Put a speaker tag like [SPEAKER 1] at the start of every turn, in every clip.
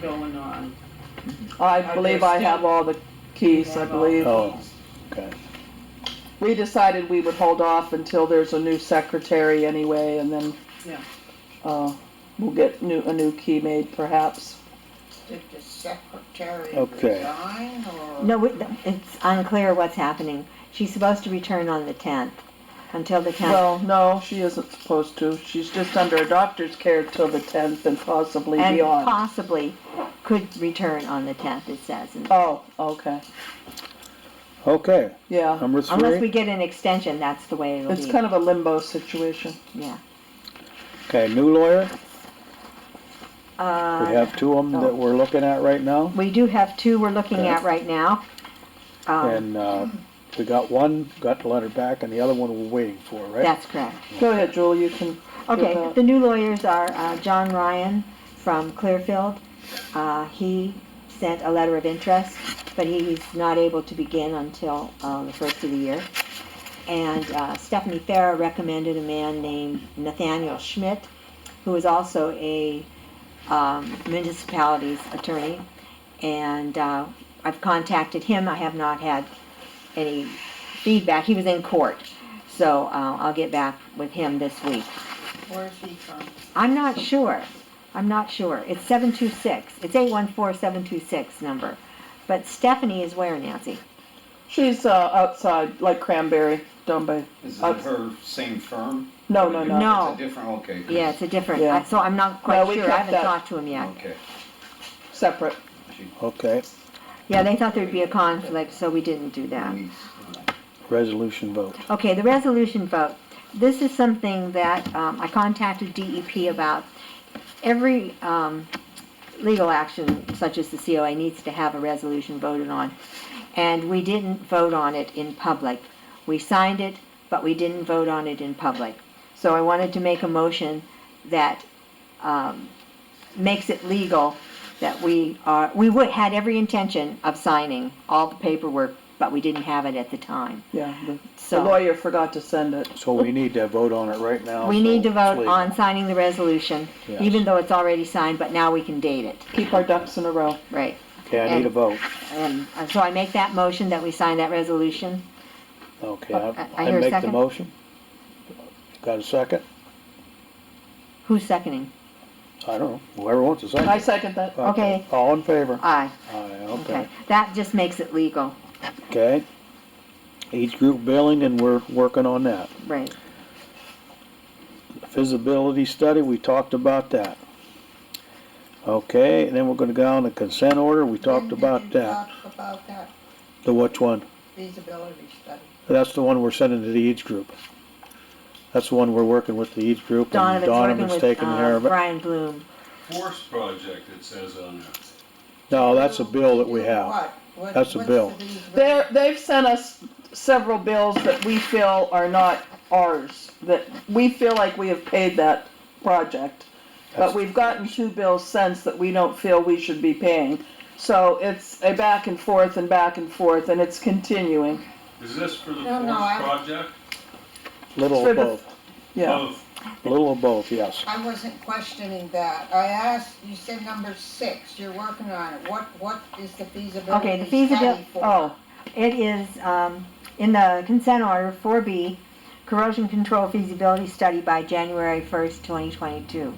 [SPEAKER 1] going on.
[SPEAKER 2] I believe I have all the keys, I
[SPEAKER 1] Have all
[SPEAKER 2] believe.
[SPEAKER 1] the
[SPEAKER 3] Oh.
[SPEAKER 1] keys.
[SPEAKER 3] Okay.
[SPEAKER 2] We decided we would hold off until there's a new secretary anyway, and then,
[SPEAKER 1] Yeah.
[SPEAKER 2] uh, we'll get new, a new key made perhaps.
[SPEAKER 1] Did the secretary
[SPEAKER 3] Okay.
[SPEAKER 1] resign or?
[SPEAKER 4] No, we- it's unclear what's happening. She's supposed to return on the 10th, until the 10th.
[SPEAKER 2] Well, no, she isn't supposed to. She's just under a doctor's care till the tenth and possibly
[SPEAKER 4] And
[SPEAKER 2] beyond.
[SPEAKER 4] possibly could return on the 10th, it says. And
[SPEAKER 2] Oh, okay,
[SPEAKER 3] Okay,
[SPEAKER 2] yeah.
[SPEAKER 3] number
[SPEAKER 4] Uh, Unless we
[SPEAKER 3] three.
[SPEAKER 4] get an extension, that's the way it'll be.
[SPEAKER 2] It's kind of a limbo situation.
[SPEAKER 4] Yeah.
[SPEAKER 3] Okay, new lawyer. We
[SPEAKER 4] Uh,
[SPEAKER 3] have two of them that we're looking at right now.
[SPEAKER 4] We do have two we're looking
[SPEAKER 3] Okay.
[SPEAKER 4] at right now. Um,
[SPEAKER 3] And, uh, we got one, got the letter back, and the other one we're waiting for, right?
[SPEAKER 4] That's correct.
[SPEAKER 2] Go ahead, Jewel, you can,
[SPEAKER 4] Okay,
[SPEAKER 2] Without-
[SPEAKER 4] the new lawyers are uh, John Ryan from Clearfield. Uh, He sent a letter of interest, but he's not able to begin until uh, the first of the year. And uh, Stephanie Farah recommended a man named Nathaniel Schmidt, who is also a um, municipality's attorney. And uh, I've contacted him, I have not had any feedback, he was in court. So uh, I'll get back with him this week.
[SPEAKER 1] Where's he from?
[SPEAKER 4] I'm not sure. I'm not sure. It's seven two six. It's eight one four seven two six number. But Stephanie is where, Nancy?
[SPEAKER 2] she's, uh, outside, like Cranberry, down by,
[SPEAKER 5] Is it
[SPEAKER 2] Uh,
[SPEAKER 5] her same firm?
[SPEAKER 2] no, no, no.
[SPEAKER 4] No.
[SPEAKER 5] It's a different, okay. 'cause-
[SPEAKER 4] Yeah, it's a different,
[SPEAKER 2] Yeah.
[SPEAKER 4] I- so I'm not quite
[SPEAKER 2] No, we
[SPEAKER 4] sure. I
[SPEAKER 2] kept
[SPEAKER 4] haven't
[SPEAKER 2] that.
[SPEAKER 4] talked to him yet.
[SPEAKER 5] Okay.
[SPEAKER 2] Separate.
[SPEAKER 5] She
[SPEAKER 3] Okay,
[SPEAKER 4] Yeah, they thought there'd be a conflict, so we didn't do that.
[SPEAKER 5] needs, uh,
[SPEAKER 3] resolution vote.
[SPEAKER 4] Okay, the resolution vote. This is something that um, I contacted DEP about. Every um, legal action such as the COA needs to have a resolution voted on. And we didn't vote on it in public. We signed it, but we didn't vote on it in public. So I wanted to make a motion that um, makes it legal that we are, we would, had every intention of signing all the paperwork, but we didn't have it at the time.
[SPEAKER 2] Yeah, the- the
[SPEAKER 4] So.
[SPEAKER 2] lawyer forgot to send it.
[SPEAKER 3] So we need to vote on it right now.
[SPEAKER 4] We need to vote
[SPEAKER 3] Please.
[SPEAKER 4] on signing the resolution,
[SPEAKER 3] Yes.
[SPEAKER 4] even though it's already signed, but now we can date it,
[SPEAKER 2] Keep our ducks in a row.
[SPEAKER 4] right?
[SPEAKER 3] Okay, I need a vote.
[SPEAKER 4] And uh, so I make that motion that we sign that resolution.
[SPEAKER 3] Okay,
[SPEAKER 4] Uh,
[SPEAKER 3] I
[SPEAKER 4] I
[SPEAKER 3] I
[SPEAKER 4] hear a
[SPEAKER 3] make the
[SPEAKER 4] second.
[SPEAKER 3] motion. Got a second?
[SPEAKER 4] Who's seconding?
[SPEAKER 3] I don't know, whoever wants a
[SPEAKER 2] I
[SPEAKER 3] second.
[SPEAKER 2] second that.
[SPEAKER 4] Okay.
[SPEAKER 3] All in favor?
[SPEAKER 4] Aye,
[SPEAKER 3] Aye,
[SPEAKER 4] okay.
[SPEAKER 3] okay.
[SPEAKER 4] That just makes it legal,
[SPEAKER 3] Okay. Each group billing, and we're working on that.
[SPEAKER 4] right?
[SPEAKER 3] Feasibility study, we talked about that. Okay, and then we're gonna go on the consent order, we talked about that.
[SPEAKER 1] Talk about that
[SPEAKER 3] The which one?
[SPEAKER 1] feasibility study.
[SPEAKER 3] That's the one we're sending to the Eads group. That's the one we're working with the Eads group, and
[SPEAKER 4] Donovan's working
[SPEAKER 3] Donovan's
[SPEAKER 4] with
[SPEAKER 3] taking care
[SPEAKER 4] uh,
[SPEAKER 3] of it.
[SPEAKER 4] Brian Bloom.
[SPEAKER 6] force project, it says on there.
[SPEAKER 3] No, that's a bill that we have.
[SPEAKER 1] What? What-
[SPEAKER 3] That's a
[SPEAKER 1] what's
[SPEAKER 3] bill.
[SPEAKER 1] the feasibility-
[SPEAKER 2] They're, they've sent us several bills that we feel are not ours, that we feel like we have paid that project. But
[SPEAKER 3] That's-
[SPEAKER 2] we've gotten two bills since that we don't feel we should be paying. So it's a back and forth and back and forth, and it's continuing,
[SPEAKER 6] Is this for the
[SPEAKER 1] No,
[SPEAKER 6] force
[SPEAKER 1] no, I-
[SPEAKER 6] project?
[SPEAKER 3] Little
[SPEAKER 2] For
[SPEAKER 3] of
[SPEAKER 2] the-
[SPEAKER 3] both,
[SPEAKER 2] yeah.
[SPEAKER 5] Oh.
[SPEAKER 6] Both.
[SPEAKER 3] little of both, yes.
[SPEAKER 1] I wasn't questioning that. I asked, you said number six, you're working on it. What, what is the
[SPEAKER 4] Okay,
[SPEAKER 1] feasibility
[SPEAKER 4] the feasibil-
[SPEAKER 1] study for?
[SPEAKER 2] Oh,
[SPEAKER 4] It is, um, in the consent order, four B, corrosion control feasibility study by January first, twenty twenty-two.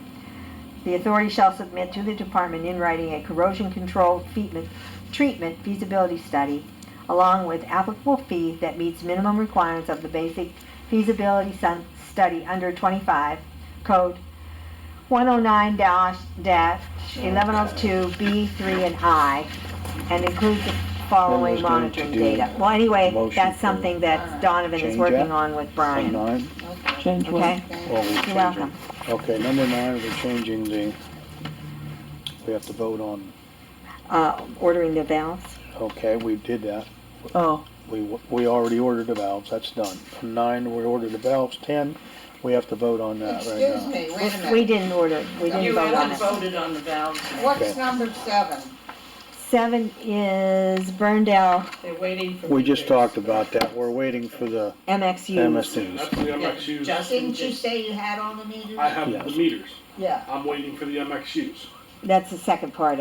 [SPEAKER 4] The authority shall submit to the department in writing a corrosion control featment- treatment feasibility study along with applicable fee that meets minimum requirements of the basic feasibility sun- study under twenty-five code one oh nine dash dash eleven oh two B three and I and includes the following
[SPEAKER 3] Then there's going to
[SPEAKER 4] monitoring
[SPEAKER 3] do
[SPEAKER 4] data. Well, anyway,
[SPEAKER 3] motion
[SPEAKER 4] that's
[SPEAKER 3] for-
[SPEAKER 4] something that Donovan is
[SPEAKER 3] Change
[SPEAKER 4] working
[SPEAKER 3] that?
[SPEAKER 4] on with
[SPEAKER 3] On
[SPEAKER 4] Brian,
[SPEAKER 3] nine,
[SPEAKER 1] Okay.
[SPEAKER 2] change one.
[SPEAKER 4] okay?
[SPEAKER 1] Thank
[SPEAKER 3] well,
[SPEAKER 1] you.
[SPEAKER 3] we
[SPEAKER 4] You're welcome.
[SPEAKER 3] Okay, number nine, we're changing the, we have to vote on,
[SPEAKER 4] Uh, ordering the valves.
[SPEAKER 3] okay, we did that.
[SPEAKER 2] Oh,
[SPEAKER 3] We, we already ordered the valves, that's done. Nine, we ordered the valves, ten, we have to vote on that right
[SPEAKER 1] Excuse
[SPEAKER 3] now.
[SPEAKER 1] me, wait a
[SPEAKER 4] We
[SPEAKER 1] minute.
[SPEAKER 4] didn't order, we didn't
[SPEAKER 1] You
[SPEAKER 4] vote on
[SPEAKER 1] haven't
[SPEAKER 4] it.
[SPEAKER 1] voted on the valves.
[SPEAKER 3] Okay.
[SPEAKER 1] What's number seven?
[SPEAKER 4] Seven is Burndale
[SPEAKER 1] They're waiting for.
[SPEAKER 3] We just
[SPEAKER 1] figures.
[SPEAKER 3] talked about that, we're waiting for the
[SPEAKER 4] MXU.
[SPEAKER 3] MSDs.
[SPEAKER 7] That's the
[SPEAKER 1] Yeah,
[SPEAKER 7] MXUs.
[SPEAKER 1] Justin
[SPEAKER 8] Didn't you
[SPEAKER 1] just,
[SPEAKER 8] say you had all the meters?
[SPEAKER 7] I have the
[SPEAKER 3] Yes.
[SPEAKER 7] meters.
[SPEAKER 1] yeah.
[SPEAKER 7] I'm waiting for the MXUs.
[SPEAKER 4] That's the second part